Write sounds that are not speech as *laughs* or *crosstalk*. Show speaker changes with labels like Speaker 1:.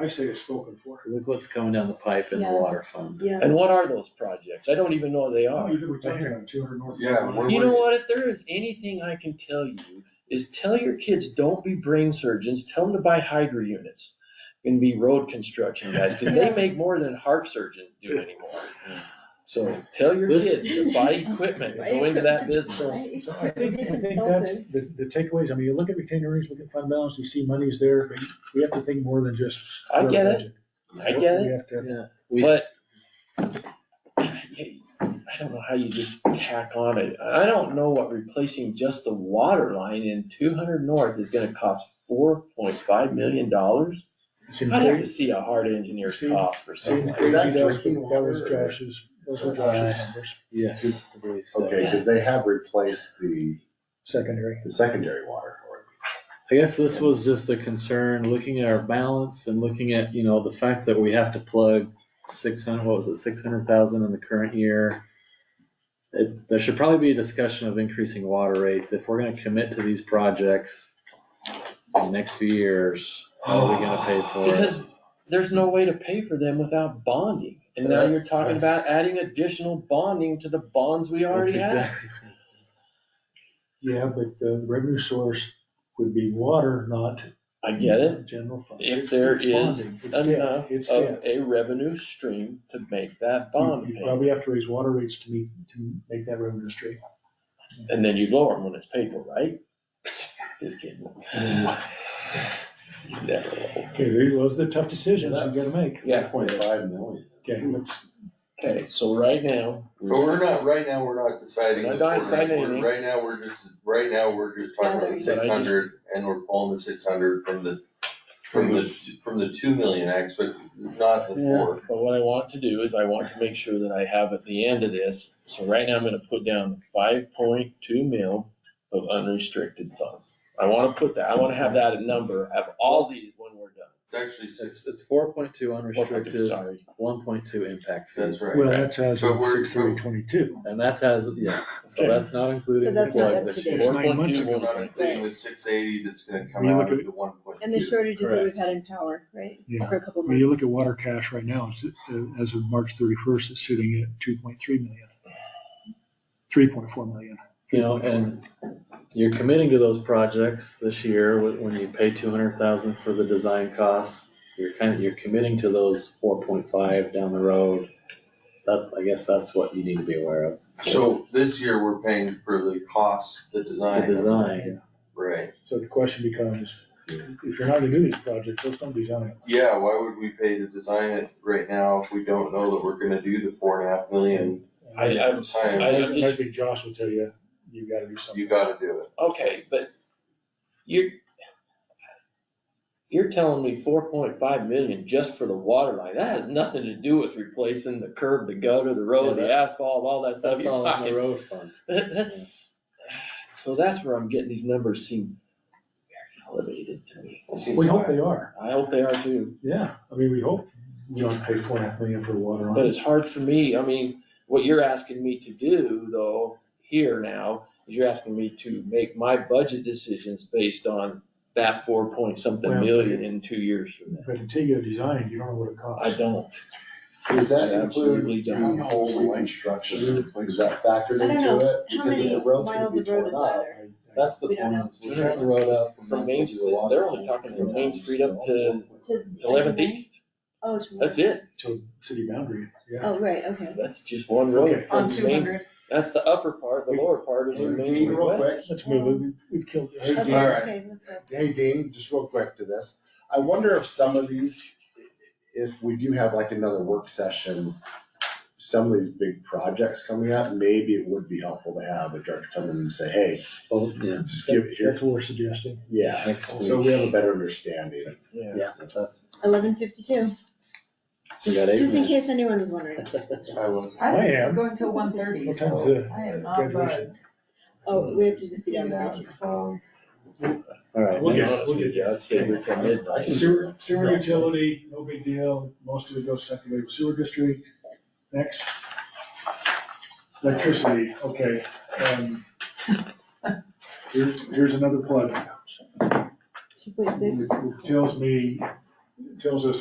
Speaker 1: I say it's spoken for.
Speaker 2: Look what's coming down the pipe in the
Speaker 3: Yeah.
Speaker 2: water fund.
Speaker 3: Yeah.
Speaker 4: And what are those projects? I don't even know they are.
Speaker 1: We're talking about two hundred north.
Speaker 5: Yeah,
Speaker 1: Carolina.
Speaker 5: we're-
Speaker 4: You know what? If there is anything I can tell you, is tell your kids, don't be brain surgeons, tell them to buy hydro units and be road construction guys, because they make more than heart surgeons do anymore. So tell your
Speaker 2: Listen.
Speaker 4: kids to buy equipment, and go into that business.
Speaker 1: So I think, I think that's the, the takeaways. I mean, you look at retained earnings, look at fund balance, you see money's there, but we have to think more than just.
Speaker 4: I get it.
Speaker 1: budget.
Speaker 4: I get it.
Speaker 1: We have to,
Speaker 2: Yeah, we,
Speaker 4: But I don't know how you just tack on it. I don't know what replacing just the water line in two hundred north is gonna cost four point five million dollars.
Speaker 1: it's in-
Speaker 4: I'd have to see a hard engineer's
Speaker 1: See-
Speaker 4: cost for
Speaker 1: see,
Speaker 4: something.
Speaker 1: crazy
Speaker 4: like that.
Speaker 5: that
Speaker 1: Josh,
Speaker 5: drinking
Speaker 1: That was
Speaker 5: water or-
Speaker 1: Josh's, those were Josh's
Speaker 4: Uh,
Speaker 1: numbers,
Speaker 2: yes, I believe so.
Speaker 5: Okay, because they have replaced the,
Speaker 1: secondary.
Speaker 5: the secondary water. or-
Speaker 2: I guess this was just a concern, looking at our balance and looking at, you know, the fact that we have to plug six hundred, what was it, six hundred thousand in the current year. It, there should probably be a discussion of increasing water rates. If we're gonna commit to these projects in the next few years, how are Oh, we gonna pay for it?
Speaker 4: Because there's no way to pay for them without bonding. And now you're talking about adding additional bonding to the bonds we
Speaker 2: That's
Speaker 4: already have.
Speaker 2: exactly-
Speaker 1: Yeah, but the revenue source would be water, not
Speaker 4: I get it.
Speaker 1: general fund.
Speaker 4: If there
Speaker 1: It's
Speaker 4: is
Speaker 1: bonding. It's debt.
Speaker 4: enough
Speaker 1: It's
Speaker 4: of
Speaker 1: debt.
Speaker 4: a revenue stream to make that
Speaker 1: You
Speaker 4: bond
Speaker 1: you
Speaker 4: payment.
Speaker 1: probably have to raise water rates to meet, to make that revenue stream.
Speaker 4: And then you lower them when it's paid for, right? *laughs* Just kidding. Never low.
Speaker 1: Okay, there was the tough decisions you gotta make.
Speaker 4: Yeah.
Speaker 5: Point five million.
Speaker 1: Okay, let's,
Speaker 4: Okay, so right now,
Speaker 6: But we're not, right now, we're not deciding.
Speaker 4: We're
Speaker 6: that
Speaker 4: not
Speaker 6: we're gonna-
Speaker 4: deciding
Speaker 6: we're-
Speaker 4: anything.
Speaker 6: Right now, we're just, right now, we're just talking about the
Speaker 4: But I just-
Speaker 6: six hundred, and we're pulling the six hundred from the, from the, from the two million acts, but not the four.
Speaker 4: but what I want to do is I want to make sure that I have at the end of this, so right now I'm gonna put down five point two mil of unrestricted funds. I wanna put that, I wanna have that number, have all these when we're done.
Speaker 6: It's actually six,
Speaker 2: It's, it's four point two
Speaker 4: Restricted,
Speaker 2: unrestricted,
Speaker 4: Sorry.
Speaker 2: one point two impact fees.
Speaker 6: That's right.
Speaker 1: well, that's as
Speaker 6: So
Speaker 1: of
Speaker 6: we're-
Speaker 1: six thirty twenty-two.
Speaker 2: And that has, yeah, so
Speaker 4: Okay.
Speaker 2: that's not
Speaker 3: So
Speaker 2: including the
Speaker 3: that's not
Speaker 2: plug
Speaker 3: up
Speaker 2: this
Speaker 3: to
Speaker 2: year.
Speaker 3: date.
Speaker 1: It's nine months ago.
Speaker 4: 4.2
Speaker 6: I'm not
Speaker 4: won't be-
Speaker 6: including the six eighty that's gonna come
Speaker 1: When you look
Speaker 6: out
Speaker 1: at-
Speaker 6: of the one point
Speaker 3: And the
Speaker 6: two.
Speaker 3: shortages that we've had in power, right?
Speaker 1: Yeah.
Speaker 3: For a couple
Speaker 1: When you look
Speaker 3: months.
Speaker 1: at water cash right now, it's, uh, as of March thirty-first, it's sitting at two point three million. Three point four million.
Speaker 2: You know, and you're committing to those projects this year, wh- when you pay two hundred thousand for the design costs, you're kind of, you're committing to those four point five down the road. That, I guess that's what you need to be aware of,
Speaker 6: So this year, we're paying for the cost, the
Speaker 2: the
Speaker 6: design.
Speaker 2: design.
Speaker 6: Right,
Speaker 1: So the question becomes, if you're not gonna do these projects, let's don't design it.
Speaker 6: yeah, why would we pay to design it right now if we don't know that we're gonna do the four and a half million?
Speaker 4: I, I'm, I'm
Speaker 1: I
Speaker 4: just
Speaker 1: think Josh will tell you, you gotta do something.
Speaker 6: You gotta do it.
Speaker 4: Okay, but you're, you're telling me four point five million just for the water line, that has nothing to do with replacing the curb, the gutter, the road,
Speaker 2: Yeah,
Speaker 4: the asphalt, all that stuff
Speaker 2: That's
Speaker 4: you're
Speaker 2: all in the
Speaker 4: talking.
Speaker 2: road fund.
Speaker 4: That- That's, so that's where I'm getting these numbers seem very elevated to me.
Speaker 6: It seems
Speaker 1: We hope
Speaker 6: high.
Speaker 1: they are,
Speaker 4: I hope they are too,
Speaker 1: yeah. I mean, we hope we don't pay four and a half million for water
Speaker 4: but
Speaker 1: on it.
Speaker 4: it's hard for me, I mean, what you're asking me to do though, here now, is you're asking me to make my budget decisions based on that four point something
Speaker 1: Well-
Speaker 4: million in two years from now.
Speaker 1: But until you design, you don't know what it
Speaker 4: I
Speaker 1: costs.
Speaker 4: don't.
Speaker 5: Does that
Speaker 4: I absolutely
Speaker 5: include
Speaker 4: don't.
Speaker 5: the whole reconstruction? Is that factored
Speaker 3: I don't
Speaker 5: into
Speaker 3: know.
Speaker 5: it?
Speaker 3: How
Speaker 5: Because
Speaker 3: many
Speaker 5: the road's gonna
Speaker 3: miles
Speaker 5: be
Speaker 3: of road is
Speaker 5: torn up.
Speaker 3: there?
Speaker 2: That's the
Speaker 3: We don't
Speaker 2: point,
Speaker 3: know.
Speaker 2: we're tearing the road up
Speaker 4: From Main Street, they're only talking from Main Street up to
Speaker 3: To-
Speaker 4: Eleventh East,
Speaker 3: Oh, it's.
Speaker 4: that's it,
Speaker 1: To city boundary, yeah.
Speaker 3: Oh, right, okay.
Speaker 4: that's just one road.
Speaker 1: Okay.
Speaker 4: from Main- That's the upper part, the lower part is the Main Street
Speaker 5: Real
Speaker 4: West.
Speaker 5: quick,
Speaker 1: Let's move, it. We- we've killed.
Speaker 5: Hey,
Speaker 3: Okay,
Speaker 5: All
Speaker 6: right.
Speaker 3: okay, let's go.
Speaker 5: hey Dean, just real quick to this. I wonder if some of these, if we do have like another work session, some of these big projects coming up, maybe it would be helpful to have a director come in and say, hey,
Speaker 2: Oh, yeah,
Speaker 5: just give it here.
Speaker 1: That's what we're suggesting.
Speaker 5: Yeah,
Speaker 2: next
Speaker 5: so
Speaker 2: week,
Speaker 5: we have a better understanding.
Speaker 4: Yeah.
Speaker 2: that's,
Speaker 3: Eleven fifty-two,
Speaker 2: we got eight
Speaker 3: just in
Speaker 2: minutes.
Speaker 3: case anyone was wondering.
Speaker 6: I was.
Speaker 1: I
Speaker 7: I
Speaker 1: am.
Speaker 7: am going till one thirty,
Speaker 1: What time's
Speaker 7: so
Speaker 1: the
Speaker 7: I am not
Speaker 1: graduation?
Speaker 7: bugged.
Speaker 3: Oh, we have to just be done by
Speaker 7: Yeah.
Speaker 3: two.
Speaker 7: Um,
Speaker 2: *laughs* All right,
Speaker 1: We'll
Speaker 2: next-
Speaker 1: get-
Speaker 4: Honest
Speaker 1: we'll
Speaker 4: with
Speaker 1: get-
Speaker 4: you, I'd
Speaker 2: *laughs*
Speaker 4: stay here till midnight.
Speaker 1: Sewer, sewer utility, no big deal, most of it goes secondary to sewer district, next. Electricity, okay, um. Here's, here's another plug,
Speaker 3: Two point six,
Speaker 1: It tells me Joseph